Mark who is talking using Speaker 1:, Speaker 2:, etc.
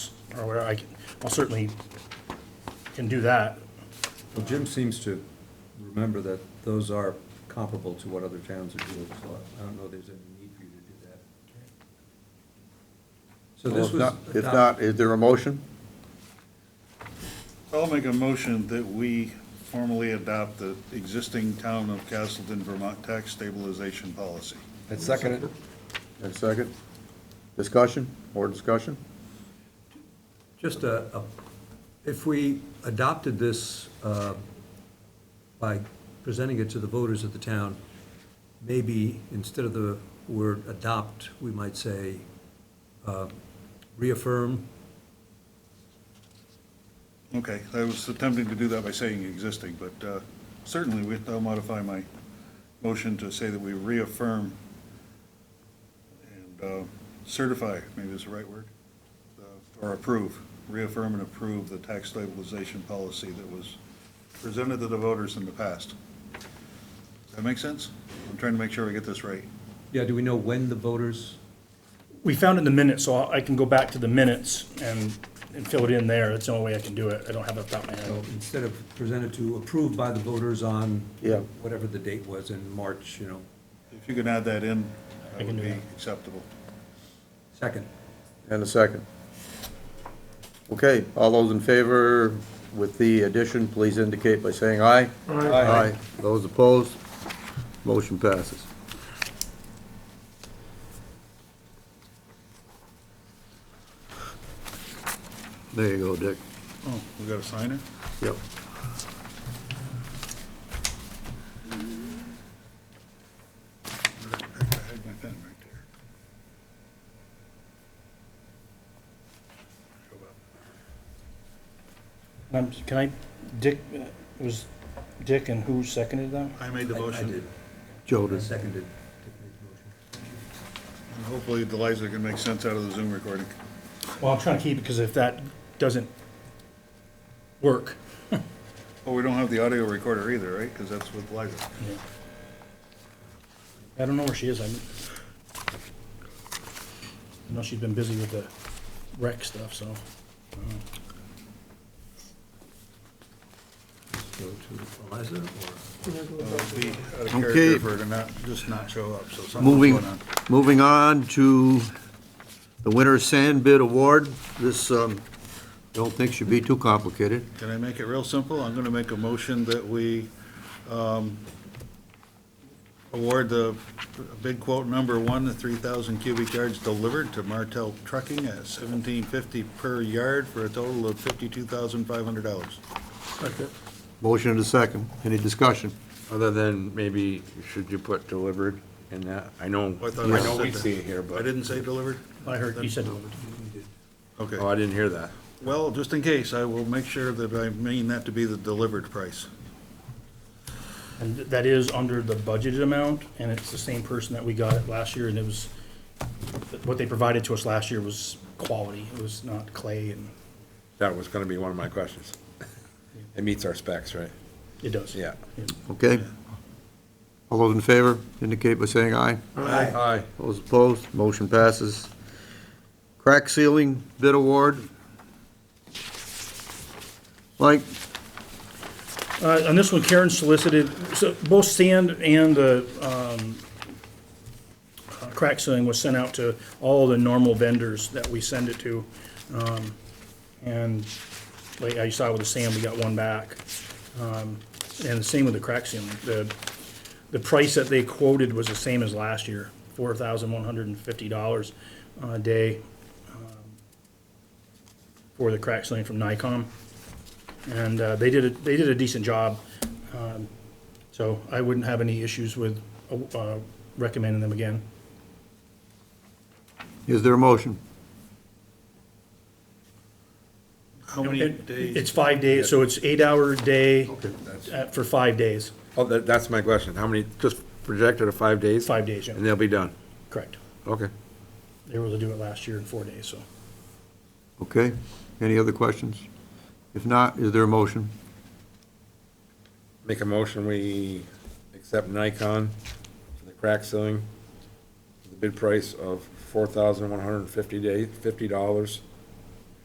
Speaker 1: or whatever, I can, I'll certainly can do that.
Speaker 2: Well, Jim seems to remember that those are comparable to what other towns are doing, so I don't know there's any need for you to do that. So
Speaker 3: Well,
Speaker 2: this
Speaker 3: if
Speaker 2: was.
Speaker 3: not- If
Speaker 2: adopt-
Speaker 3: not, is there a motion?
Speaker 4: I'll make a motion that we formally adopt the existing town of Castleton, Vermont tax stabilization policy.
Speaker 5: I second it.
Speaker 3: And second? Discussion, more discussion?
Speaker 2: Just a, a- if we adopted this uh, by presenting it to the voters of the town, maybe instead of the word adopt, we might say uh, reaffirm.
Speaker 4: Okay, I was attempting to do that by saying existing, but uh, certainly we- I'll modify my motion to say that we reaffirm and uh, certify, maybe is the right word, uh, or approve, reaffirm and approve the tax stabilization policy that was presented to the voters in the past. Does that make sense? I'm trying to make sure I get this right.
Speaker 2: Yeah, do we know when the voters?
Speaker 1: We found in the minutes, so I can go back to the minutes and, and fill it in there. That's the only way I can do it. I don't have it off the top of my
Speaker 2: So
Speaker 1: head.
Speaker 2: instead of presented to, approved by the voters on
Speaker 3: Yeah.
Speaker 2: whatever the date was in March, you know,
Speaker 4: If you can add that in,
Speaker 1: I
Speaker 4: that
Speaker 1: can
Speaker 4: would
Speaker 1: do
Speaker 4: be
Speaker 1: that.
Speaker 4: acceptable.
Speaker 2: second.
Speaker 3: And a second? Okay, all those in favor with the addition, please indicate by saying aye. Aye. Those opposed? Motion passes. There you go, Dick.
Speaker 4: Oh, we got to sign it?
Speaker 3: Yep.
Speaker 4: I had my pen right there. Go up.
Speaker 1: Um, Can I, Dick, uh, it was Dick and who seconded that?
Speaker 4: I made the
Speaker 2: I- I
Speaker 4: motion.
Speaker 2: did.
Speaker 3: Joe
Speaker 2: I
Speaker 3: did.
Speaker 2: seconded Tiffany's motion.
Speaker 4: And Hopefully Liza can make sense out of the Zoom recording.
Speaker 1: Well, I'm trying to keep it, because if that doesn't work,
Speaker 4: Oh, we don't have the audio recorder either, right? Because that's with Liza.
Speaker 1: I don't know where she is. I'm, I know she's been busy with the rec stuff, so.
Speaker 2: Go to Eliza or?
Speaker 4: Be out of
Speaker 3: Okay.
Speaker 4: character for her to not, just not show up, so something's
Speaker 3: Moving,
Speaker 4: going on.
Speaker 3: moving on to the winter sand bid award. This, um, don't think should be too complicated.
Speaker 4: Can I make it real simple? I'm going to make a motion that we um, award the bid quote number one, the 3,000 cubic yards delivered to Martel Trucking at 1750 per yard for a total of $52,500.
Speaker 3: Motion and a second. Any discussion?
Speaker 5: Other than maybe, should you put delivered in that? I know,
Speaker 4: I thought I
Speaker 5: I know we
Speaker 4: said that.
Speaker 5: see it here,
Speaker 4: I
Speaker 5: but,
Speaker 4: didn't say delivered?
Speaker 1: I heard, you said,
Speaker 4: Okay.
Speaker 5: oh, I didn't hear that.
Speaker 4: Well, just in case, I will make sure that I mean that to be the delivered price.
Speaker 1: and that is under the budgeted amount, and it's the same person that we got it last year, and it was, what they provided to us last year was quality. It was not clay, and
Speaker 5: That was gonna be one of my questions. It meets our specs, right?
Speaker 1: it does.
Speaker 5: Yeah.
Speaker 3: Okay? All those in favor indicate by saying aye.
Speaker 5: Aye.
Speaker 3: Those opposed, motion passes. Crack ceiling bid award. Mike,
Speaker 1: Uh, on this one, Karen solicited, so both sand and the, um, uh, crack ceiling was sent out to all the normal vendors that we send it to. Um, and like I saw with the sand, we got one back. Um, and the same with the crack ceiling. The, the price that they quoted was the same as last year, four thousand one hundred and fifty dollars a day um, for the crack ceiling from Nikon and uh, they did, a- they did a decent job. Um, So I wouldn't have any issues with uh, uh, recommending them again.
Speaker 3: is there a motion?
Speaker 4: How many
Speaker 1: It- It's
Speaker 4: days?
Speaker 1: five days, so it's eight-hour day
Speaker 5: that's-
Speaker 1: uh, for five days,
Speaker 5: Oh, that, that's my question. How many, just projected to five days?
Speaker 1: five days,
Speaker 5: And
Speaker 1: yeah,
Speaker 5: they'll be done.
Speaker 1: correct.
Speaker 5: Okay.
Speaker 1: They were able to do it last year in four days, so.
Speaker 3: Okay, any other questions? If not, is there a motion?
Speaker 5: Make a motion, we accept Nikon for the crack ceiling, the bid price of four thousand one hundred and fifty day, fifty dollars